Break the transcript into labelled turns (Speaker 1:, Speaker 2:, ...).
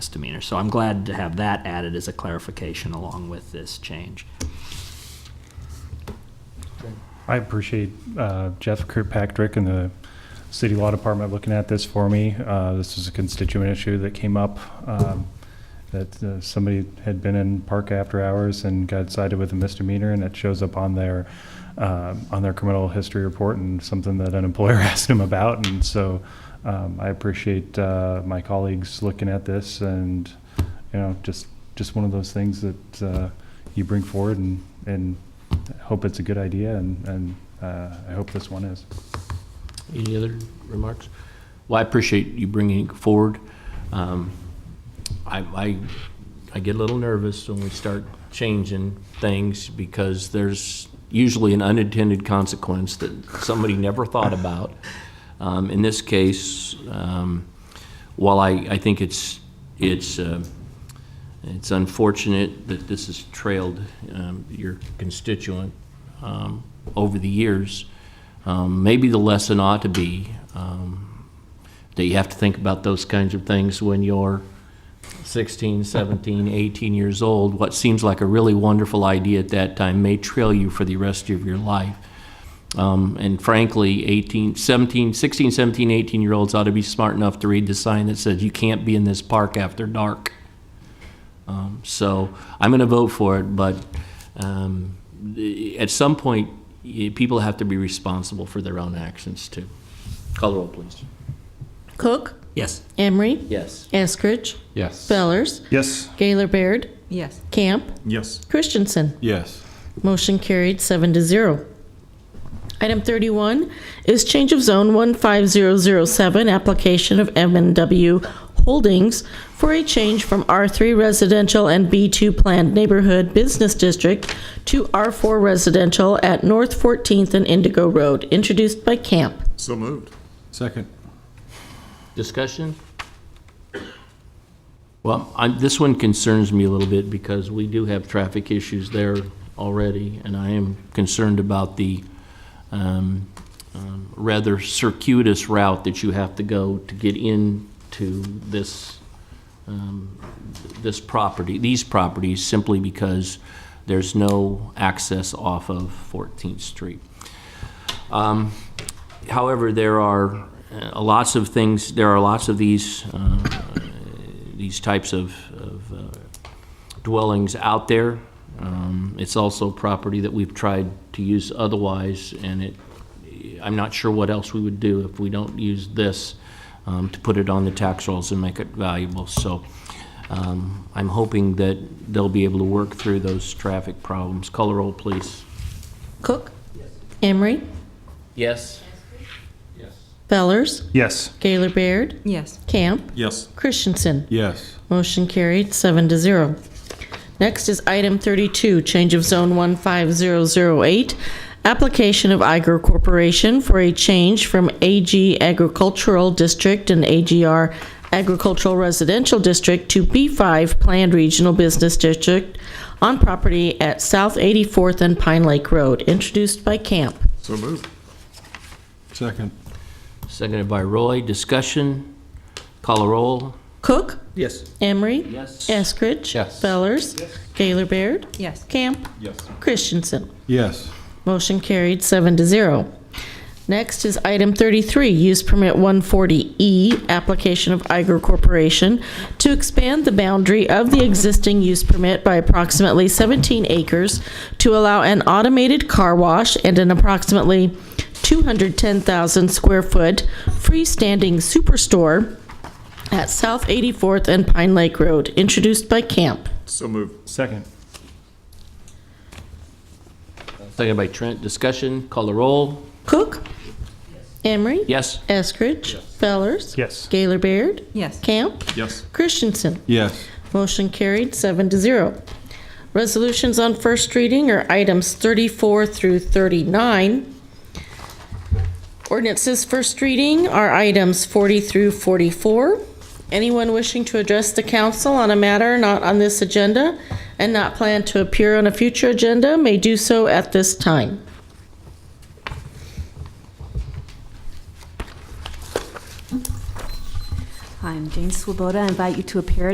Speaker 1: misdemeanor. So I'm glad to have that added as a clarification along with this change.
Speaker 2: I appreciate uh, Jeff Kirkpatrick and the City Law Department looking at this for me. Uh, This is a constituent issue that came up, um, that uh, somebody had been in park after hours and got cited with a misdemeanor, and it shows up on their, um, on their criminal history report and something that an employer asked them about. And so um, I appreciate uh, my colleagues looking at this and, you know, just, just one of those things that uh, you bring forward and, and hope it's a good idea, and, and uh, I hope this one is.
Speaker 3: Any other remarks? Well, I appreciate you bringing it forward. Um, I, I, I get a little nervous when we start changing things because there's usually an unintended consequence that somebody never thought about. Um, In this case, um, while I, I think it's, it's, uh, it's unfortunate that this has trailed um, your constituent um, over the years. Um, Maybe the lesson ought to be um, that you have to think about those kinds of things when you're 16, 17, 18 years old. What seems like a really wonderful idea at that time may trail you for the rest of your life. Um, And frankly, 18, 17, 16, 17, 18-year-olds ought to be smart enough to read the sign that says, "You can't be in this park after dark." So I'm going to vote for it, but um, the- at some point, y- people have to be responsible for their own actions too. Call the roll, please.
Speaker 4: Cook,
Speaker 1: Yes.
Speaker 4: Emery,
Speaker 3: Yes.
Speaker 4: Eskridge,
Speaker 5: Yes.
Speaker 4: Fellers,
Speaker 6: Yes.
Speaker 4: Gaylor Baird,
Speaker 7: Yes.
Speaker 4: Camp,
Speaker 6: Yes.
Speaker 4: Christensen.
Speaker 5: Yes.
Speaker 4: Motion carried, seven to zero. Item 31 is change of zone 15007, application of m and W Holdings for a change from R3 Residential and B2 Planned Neighborhood Business District to R4 Residential at North 14th and Indigo Road, introduced by Camp.
Speaker 6: So moved.
Speaker 5: Second.
Speaker 3: Discussion? Well, I'm, this one concerns me a little bit because we do have traffic issues there already, and I am concerned about the um, um, rather circuitous route that you have to go to get into this, um, this property, these properties, simply because there's no access off of 14th Street. However, there are uh, lots of things, there are lots of these, uh, these types of of, uh, dwellings out there. Um, It's also property that we've tried to use otherwise, and it, I'm not sure what else we would do if we don't use this um, to put it on the tax rolls and make it valuable. So um, I'm hoping that they'll be able to work through those traffic problems. Color roll, please.
Speaker 4: Cook? Emery?
Speaker 3: Yes?
Speaker 4: Fellers?
Speaker 2: Yes.
Speaker 4: Gaylor Baird?
Speaker 7: Yes.
Speaker 4: Camp?
Speaker 6: Yes.
Speaker 4: Christensen?
Speaker 5: Yes.
Speaker 4: Motion carried, seven to zero. Next is item 32, change of zone 15008, application of Iger Corporation for a change from AG Agricultural District and AGR Agricultural Residential District to B5 Planned Regional Business District on property at South 84th and Pine Lake Road, introduced by Camp.
Speaker 6: So moved.
Speaker 5: Second.
Speaker 3: Seconded by Roy. Discussion? Call a roll?
Speaker 4: Cook?
Speaker 1: Yes.
Speaker 4: Emery?
Speaker 3: Yes.
Speaker 4: Eskridge?
Speaker 5: Yes.
Speaker 4: Fellers? Gaylor Baird?
Speaker 7: Yes.
Speaker 4: Camp?
Speaker 5: Yes.
Speaker 4: Christensen?
Speaker 5: Yes.
Speaker 4: Motion carried, seven to zero. Next is item 33, use permit 140E, application of Iger Corporation to expand the boundary of the existing use permit by approximately 17 acres to allow an automated car wash and an approximately 210,000 square foot freestanding superstore at South 84th and Pine Lake Road, introduced by Camp.
Speaker 6: So moved.
Speaker 2: Second.
Speaker 3: Seconded by Trent. Discussion? Call a roll?
Speaker 4: Cook? Emery?
Speaker 3: Yes?
Speaker 4: Eskridge? Fellers?
Speaker 2: Yes.
Speaker 4: Gaylor Baird?
Speaker 7: Yes.
Speaker 4: Camp?
Speaker 6: Yes.
Speaker 4: Christensen?
Speaker 5: Yes.
Speaker 4: Motion carried, seven to zero. Resolutions on first reading are items 34 through 39. Ordinances first reading are items 40 through 44. Anyone wishing to address the council on a matter not on this agenda and not plan to appear on a future agenda may do so at this time.
Speaker 8: Hi, I'm Jane Swoboda. I invite you to appear